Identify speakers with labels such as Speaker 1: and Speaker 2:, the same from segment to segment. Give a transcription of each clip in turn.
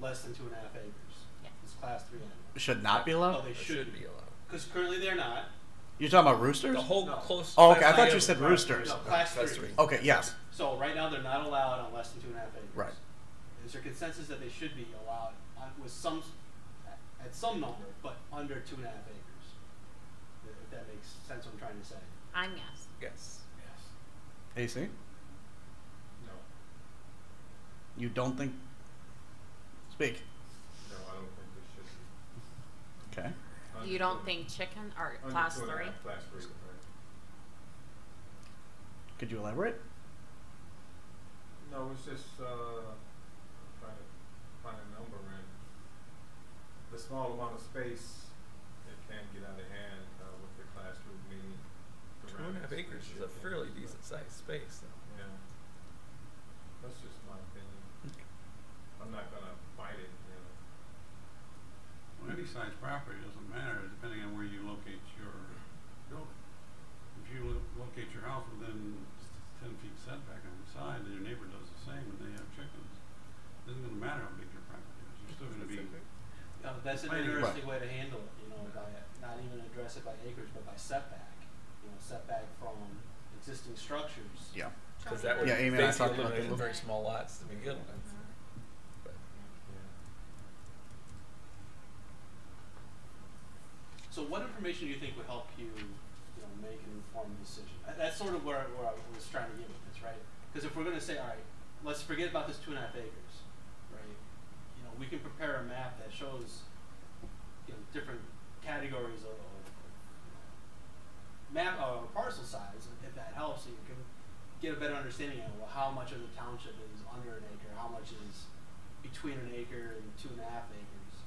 Speaker 1: less than two and a half acres.
Speaker 2: Yeah.
Speaker 1: It's class three animal.
Speaker 3: Should not be
Speaker 1: Oh,
Speaker 3: allowed.
Speaker 1: they
Speaker 4: It
Speaker 1: should
Speaker 4: should
Speaker 1: be.
Speaker 4: be allowed.
Speaker 1: Because currently they're not.
Speaker 3: You're talking about roosters.
Speaker 4: The whole
Speaker 1: No.
Speaker 4: close.
Speaker 3: Oh, okay. I
Speaker 4: class
Speaker 3: thought
Speaker 4: three
Speaker 3: you
Speaker 4: of-
Speaker 3: said roosters.
Speaker 1: No, class,
Speaker 4: Class
Speaker 1: three.
Speaker 4: three.
Speaker 3: Okay. Yes.
Speaker 1: So right now they're not allowed on less than two and a half acres.
Speaker 3: Right.
Speaker 1: Is there consensus that they should be allowed on, with some, at some number, but under two and a half acres? If that makes sense, what I'm trying to say.
Speaker 2: I'm yes.
Speaker 4: Yes.
Speaker 5: Yes.
Speaker 3: AC.
Speaker 5: No.
Speaker 3: You don't think? Speak.
Speaker 5: No, I don't think there should be.
Speaker 3: Okay.
Speaker 2: You don't think chicken or
Speaker 5: Under
Speaker 2: class
Speaker 5: two and a
Speaker 2: three?
Speaker 5: half, Class three, right.
Speaker 3: Could you elaborate?
Speaker 5: No, it's just, uh, trying to find a number and the small amount of space, it can get out of hand, uh, with the class three meaning. the
Speaker 4: Two and a half
Speaker 5: roundness
Speaker 4: acres is a
Speaker 5: ratio.
Speaker 4: fairly decent sized space. Though.
Speaker 5: Yeah. That's just my opinion. I'm not gonna fight it, you know.
Speaker 6: Well, any size property doesn't matter, depending on where you locate your building. If you lo- locate your house within ten feet setback on the side, then your neighbor does the same, and they have chickens. Doesn't gonna matter how big your property is, you're still gonna be,
Speaker 1: No, Uh, that's an
Speaker 6: Right.
Speaker 1: interesting way to handle it, you know, by not even address it by acreage, but by setback. You know, setback from existing structures.
Speaker 3: Yeah.
Speaker 4: Because that would
Speaker 3: Yeah, Amy and I
Speaker 4: basically
Speaker 3: talked about
Speaker 4: eliminate
Speaker 3: that.
Speaker 4: very small lots to begin with.
Speaker 2: Mm-hmm.
Speaker 5: Yeah.
Speaker 1: So what information do you think would help you, you know, make an informed decision? Uh, That's sort of where, where I was trying to get with this, right? Because if we're gonna say, all right, let's forget about this two and a half acres, right? You know, we can prepare a map that shows, you know, different categories of, of you know, map or parcel size, if- if that helps, so you can get a better understanding of well, how much of the township is under an acre, how much is between an acre and two and a half acres.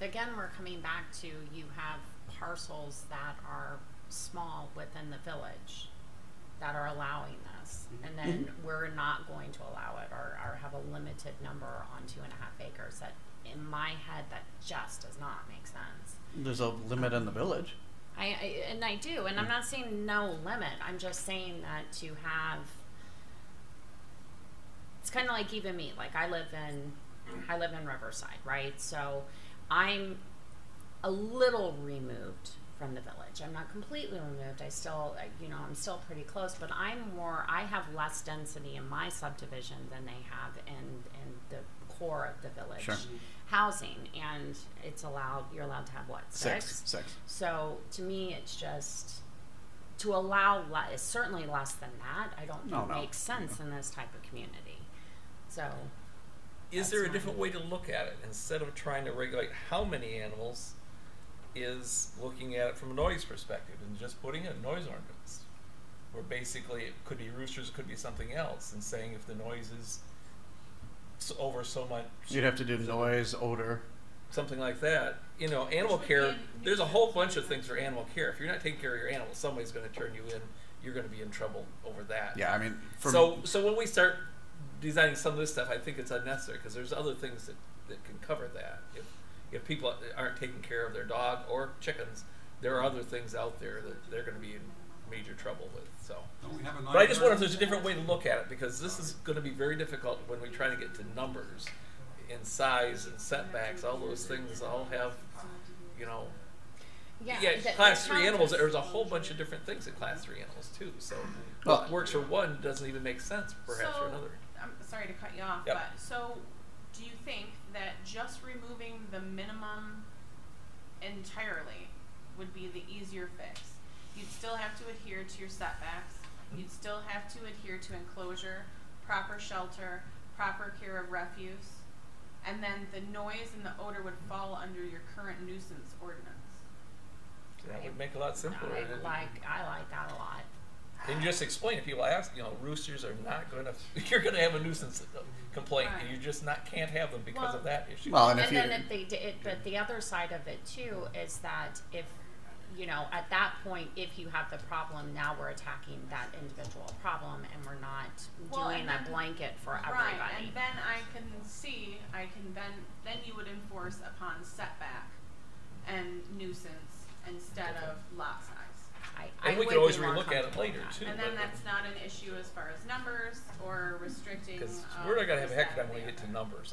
Speaker 2: Again, we're coming back to you have parcels that are small within the village that are allowing this. And then we're not going to allow it or, or have a limited number on two and a half acres. That in my head, that just does not make sense.
Speaker 3: There's a limit in the village.
Speaker 2: I, I and I do, and I'm not saying no limit. I'm just saying that to have. It's kind of like even me. Like I live in, I live in Riverside, right? So, I'm a little removed from the village. I'm not completely removed. I still, I- you know, I'm still pretty close, but I'm more. I have less density in my subdivision than they have in in the core of the village
Speaker 3: Sure.
Speaker 2: housing, and it's allowed. You're allowed to have what
Speaker 3: Six. Six.
Speaker 2: so to me, it's just to allow le- certainly less than that. I don't think
Speaker 3: No, no.
Speaker 2: makes sense in this type of community. So
Speaker 4: Is
Speaker 2: That's
Speaker 4: there a
Speaker 2: fine.
Speaker 4: different way to look at it instead of trying to regulate how many animals? Is looking at it from a noise perspective and just putting in a noise ordinance, where basically it could be roosters, could be something else, and saying if the noise is s- over so much,
Speaker 3: You'd have to do noise, odor.
Speaker 4: something like that. You know, animal
Speaker 7: Which would
Speaker 4: care.
Speaker 7: be-
Speaker 4: There's a whole bunch of things for animal care. If you're not taking care of your animals, somebody's going to turn you in. You're going to be in trouble over that.
Speaker 3: Yeah. I mean, for
Speaker 4: so so when we start designing some of this stuff, I think it's unnecessary because there's other things that, that can cover that. If if people aren't taking care of their dog or chickens, there are other things out there that they're going to be in major trouble with. So.
Speaker 6: don't we have a nine?
Speaker 4: But I just wonder if there's a different way to look at it because this is going to be very difficult when we try to get to numbers in size and setbacks. All those things all have, you know, yeah,
Speaker 2: the-
Speaker 4: class
Speaker 2: the
Speaker 4: three animals.
Speaker 2: town-
Speaker 4: There's a whole bunch of different things in class three animals too. So
Speaker 3: Well-
Speaker 4: what works for one doesn't even make sense perhaps
Speaker 7: so,
Speaker 4: for another.
Speaker 2: uh,
Speaker 7: I'm sorry to cut you off,
Speaker 4: Yep.
Speaker 7: but so do you think that just removing the minimum entirely would be the easier fix? You'd still have to adhere to your setbacks. You'd still have to adhere to enclosure, proper shelter, proper care of refuse, and then the noise and the odor would fall under your current nuisance ordinance.
Speaker 4: That would make it a lot simpler.
Speaker 2: I
Speaker 4: And-
Speaker 2: like I like that a lot.
Speaker 4: And you just explain to people ask, you know, roosters are not going to. You're going to have a nuisance uh, complaint, and you just not can't have them because
Speaker 7: Well-
Speaker 4: of that issue.
Speaker 3: well, and if
Speaker 2: and
Speaker 3: you
Speaker 2: then if they did, it, but the other side of it too is that if you know at that point, if you have the problem, now we're attacking that individual problem, and we're not
Speaker 7: Well,
Speaker 2: doing
Speaker 7: and
Speaker 2: a
Speaker 7: then-
Speaker 2: blanket for everybody.
Speaker 7: Right, and then I can see, I can then, then you would enforce upon setback and nuisance instead of lot size.
Speaker 2: I, I
Speaker 4: and we
Speaker 2: would
Speaker 4: could always
Speaker 2: be more
Speaker 4: relook at it
Speaker 2: comfortable with
Speaker 4: later
Speaker 2: that.
Speaker 4: too.
Speaker 7: And
Speaker 4: but-
Speaker 7: then that's not an issue as far as numbers or um, restricting.
Speaker 4: because
Speaker 7: um, uh,
Speaker 4: we're not going to have a heck of a time
Speaker 7: percent
Speaker 4: when we get
Speaker 7: there.
Speaker 4: to numbers.